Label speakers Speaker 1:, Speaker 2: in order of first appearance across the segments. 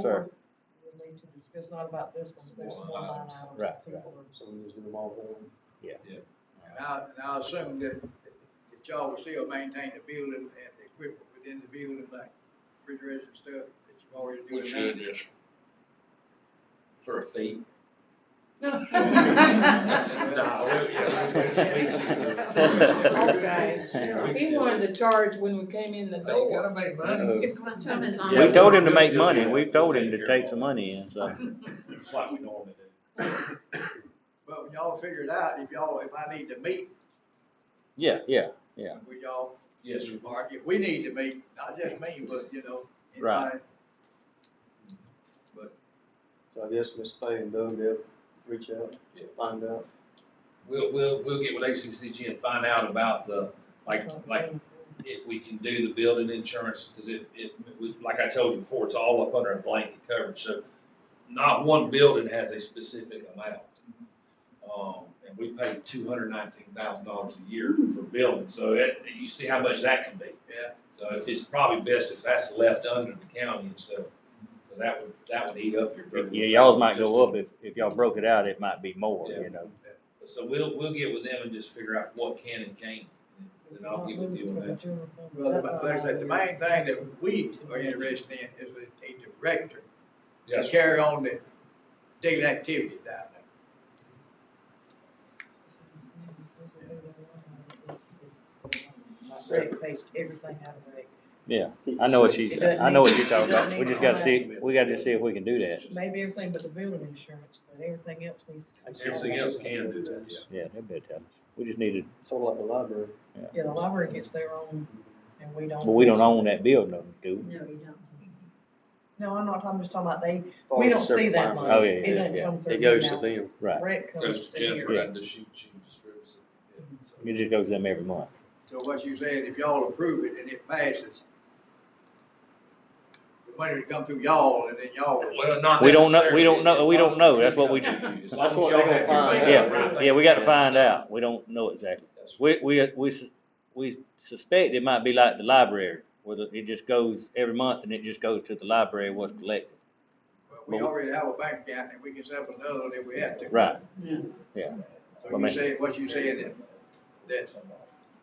Speaker 1: Sir.
Speaker 2: more we need to discuss, not about this one, but there's some more line items
Speaker 1: Right,
Speaker 2: that people are.
Speaker 3: So we just do them all at once.
Speaker 4: And I, and I assume that, that y'all will still maintain the building and the equipment within the building, like refrigeration and stuff that you've already
Speaker 5: We
Speaker 4: doing
Speaker 5: should
Speaker 4: now.
Speaker 5: just for a fee.
Speaker 2: He wanted to charge when we came in the
Speaker 4: They gotta
Speaker 2: door.
Speaker 4: make money.
Speaker 1: We
Speaker 2: Something's on
Speaker 5: Yeah.
Speaker 2: it.
Speaker 1: told him to make money, we told him to take some money in, so.
Speaker 3: It's like we normally do.
Speaker 4: But when y'all figure it out, if y'all, if I need to meet
Speaker 1: Yeah, yeah, yeah.
Speaker 4: with y'all,
Speaker 5: Yes, sir.
Speaker 4: Mark, if we need to meet, not just me, but, you know,
Speaker 1: Right.
Speaker 4: anybody. But
Speaker 3: So I guess Miss Pay and Doug, they'll reach out,
Speaker 5: Yeah.
Speaker 3: find out.
Speaker 5: We'll, we'll, we'll get with ACCG and find out about the, like, like, if we can do the building insurance, because it, it, we- like I told you before, it's all up under a blanket coverage, so not one building has a specific amount. Um, and we pay two hundred nineteen thousand dollars a year for building, so it, you see how much that can be.
Speaker 4: Yeah.
Speaker 5: So if it's probably best if that's left under the county and stuff, 'cause that would, that would eat up your.
Speaker 1: Yeah, y'all might go up, if, if y'all broke it out, it might be more, you know.
Speaker 5: So we'll, we'll get with them and just figure out what can and can't, and then I'll get with you on that.
Speaker 4: Well, the- like I said, the main thing that we are interested in is a- a director to
Speaker 5: Yes, sir.
Speaker 4: carry on the daily activities down there.
Speaker 2: They based everything out of it.
Speaker 1: Yeah, I know what she's, I know what you're talking about, we just gotta see, we gotta just see if we can do that.
Speaker 2: Maybe everything but the building insurance, but everything else needs to come.
Speaker 5: Everything else can do that, yeah.
Speaker 1: Yeah, that'd be a challenge. We just needed,
Speaker 3: Sort of like the library.
Speaker 2: Yeah, the library gets their own, and we don't.
Speaker 1: but we don't own that building, do we?
Speaker 6: No, you don't.
Speaker 2: No, I'm not, I'm just talking about they,
Speaker 3: Follows
Speaker 2: we
Speaker 3: a
Speaker 2: don't see
Speaker 3: certain
Speaker 2: that
Speaker 3: line.
Speaker 2: money.
Speaker 1: Oh, yeah,
Speaker 2: It doesn't
Speaker 1: yeah,
Speaker 2: come through
Speaker 3: It goes
Speaker 2: now.
Speaker 3: to them.
Speaker 1: Right,
Speaker 2: Rec
Speaker 5: Goes
Speaker 2: comes
Speaker 5: to
Speaker 2: to
Speaker 5: Jennifer,
Speaker 2: here.
Speaker 5: and does she, she distributes it. Yeah, so-
Speaker 1: it just goes to them every month.
Speaker 4: So what you said, if y'all approve it and it passes, the money would come through y'all and then y'all.
Speaker 5: Well, not
Speaker 1: We don't know- we don't
Speaker 5: necessarily.
Speaker 1: know- we don't know. That's what we-
Speaker 5: As long
Speaker 3: That's
Speaker 5: as
Speaker 3: what
Speaker 5: y'all
Speaker 3: they gonna
Speaker 5: have
Speaker 3: find
Speaker 5: everything
Speaker 1: out.
Speaker 5: right.
Speaker 1: Yeah, we gotta find out, we don't know exactly.
Speaker 5: That's
Speaker 1: We, we, we, sus- we suspect it might be like the library, where the- it just goes every month and it just goes to the library what's collected.
Speaker 4: But We already have a bank account and we can set up another if we have to.
Speaker 1: Right,
Speaker 4: So you say, what you said, that, that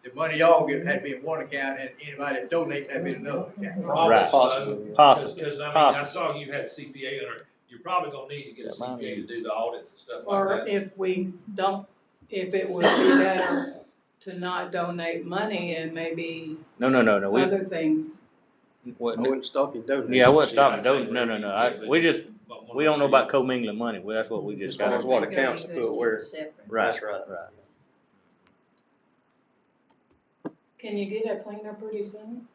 Speaker 4: the money y'all get had been one account and anybody that donate had been another account.
Speaker 5: Probably
Speaker 1: Right.
Speaker 5: so.
Speaker 3: Possibly.
Speaker 1: possible,
Speaker 5: Because, I mean, I
Speaker 1: possible.
Speaker 5: saw you had CPA on her, you're probably gonna need to get a
Speaker 1: Yeah, mine
Speaker 5: CPA to do the audits and stuff
Speaker 7: Or
Speaker 5: like that.
Speaker 7: if we don't, if it would be better to not donate money and maybe
Speaker 1: No, no, no, no, we,
Speaker 7: other things.
Speaker 1: what-
Speaker 3: I wouldn't stop you doing that.
Speaker 1: yeah, I wasn't
Speaker 5: Yeah,
Speaker 1: stopping, those. no, no, no, I, we just, we don't know about commingling money, well, that's what we just
Speaker 3: As long
Speaker 1: got.
Speaker 3: as what accounts to put where.
Speaker 6: Separate.
Speaker 1: Right,
Speaker 3: That's right.
Speaker 1: right.
Speaker 7: Can you get it cleaned up pretty soon?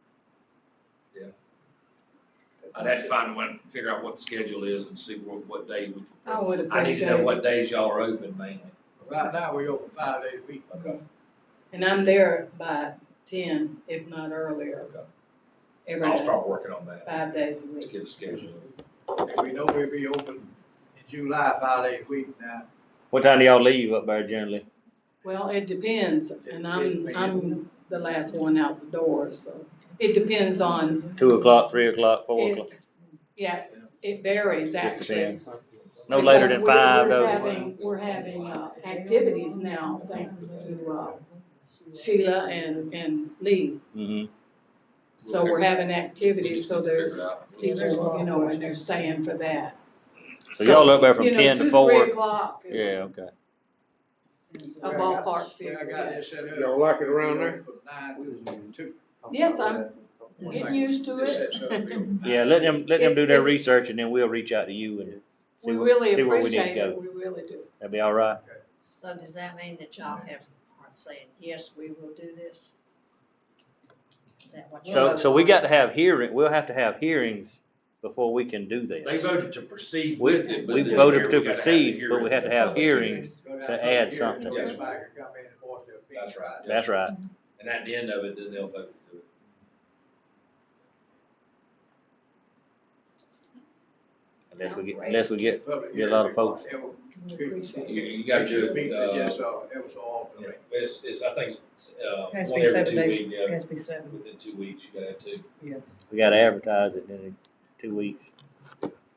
Speaker 5: I'd have to find one, figure out what the schedule is and see what, what day we.
Speaker 7: I would
Speaker 5: I need to
Speaker 7: appreciate
Speaker 5: know what
Speaker 7: it.
Speaker 5: days y'all are open mainly.
Speaker 4: Right now, we open five days a week.
Speaker 7: And I'm there by ten, if not earlier,
Speaker 5: Okay.
Speaker 7: every
Speaker 5: I'll
Speaker 7: night,
Speaker 5: start working on that
Speaker 7: five days a
Speaker 5: to
Speaker 7: week.
Speaker 5: get a schedule.
Speaker 4: And we know we'll be open in July, five days a week now.
Speaker 1: What time do y'all leave up there generally?
Speaker 7: Well, it depends, and I'm,
Speaker 4: Yes, ma'am.
Speaker 7: I'm the last one out the door, so it depends on,
Speaker 1: Two o'clock, three o'clock, four o'clock?
Speaker 7: it, yeah, it varies actually.
Speaker 1: No later than
Speaker 7: Because we're-
Speaker 1: five,
Speaker 7: We're
Speaker 1: though.
Speaker 7: having, we're having, uh, activities now, thanks to, uh, Sheila and, and Lee.
Speaker 1: Mm-hmm,
Speaker 7: So we're having activities, so
Speaker 5: Figure it
Speaker 7: there's
Speaker 5: out.
Speaker 7: teachers, you know, and they're staying for that.
Speaker 1: so y'all up there from
Speaker 7: You know,
Speaker 1: ten
Speaker 7: two,
Speaker 1: to
Speaker 7: Three
Speaker 1: four?
Speaker 7: o'clock is
Speaker 1: Yeah, okay,
Speaker 7: a ballpark
Speaker 4: Yeah, I
Speaker 7: figure,
Speaker 4: got
Speaker 7: yeah.
Speaker 4: this set up.
Speaker 3: Y'all like it around there?
Speaker 4: From nine to two.
Speaker 7: Yes, I'm-
Speaker 4: One
Speaker 7: Getting
Speaker 4: second.
Speaker 7: used to
Speaker 4: This
Speaker 7: it.
Speaker 4: sets up real nice.
Speaker 1: yeah, let them, let them do their
Speaker 7: If- if-
Speaker 1: research and then we'll reach out to you and see
Speaker 7: We
Speaker 1: where-
Speaker 7: really
Speaker 1: see where we need to
Speaker 7: appreciate
Speaker 1: go.
Speaker 7: it, we really do.
Speaker 1: that'd be all right?
Speaker 6: So does that mean that y'all have, are saying, yes, we will do this? Is that what you're?
Speaker 1: So, so we got to have hearing, we'll have to have hearings before we can do
Speaker 5: They
Speaker 1: this.
Speaker 5: voted to proceed
Speaker 1: We-
Speaker 5: with it, but.
Speaker 1: we
Speaker 5: this
Speaker 1: voted
Speaker 5: year
Speaker 1: to
Speaker 5: we gotta have the
Speaker 1: proceed, but we
Speaker 5: hearing.
Speaker 1: had to have hearings
Speaker 4: Go down
Speaker 1: to
Speaker 4: the
Speaker 1: add
Speaker 4: here,
Speaker 1: something.
Speaker 4: the inspector come in and voice their opinion.
Speaker 5: That's right.
Speaker 1: That's right,
Speaker 5: And at the end of it, then they'll vote to do it.
Speaker 1: unless we get, unless we get,
Speaker 4: Public
Speaker 1: Get a lot of
Speaker 4: hearing.
Speaker 1: folks.
Speaker 4: It was-
Speaker 7: We appreciate
Speaker 5: You,
Speaker 7: it.
Speaker 5: you gotta do it,
Speaker 4: Meeting,
Speaker 5: uh,
Speaker 4: yes, uh, it was all for
Speaker 5: yeah,
Speaker 4: me.
Speaker 5: it's, it's, I think, it's, uh,
Speaker 2: Has to
Speaker 5: one
Speaker 2: be
Speaker 5: every
Speaker 2: seven
Speaker 5: two
Speaker 2: days,
Speaker 5: weeks, yeah,
Speaker 2: has to be seven.
Speaker 5: within two weeks, you gotta have two.
Speaker 1: we gotta advertise it in two weeks.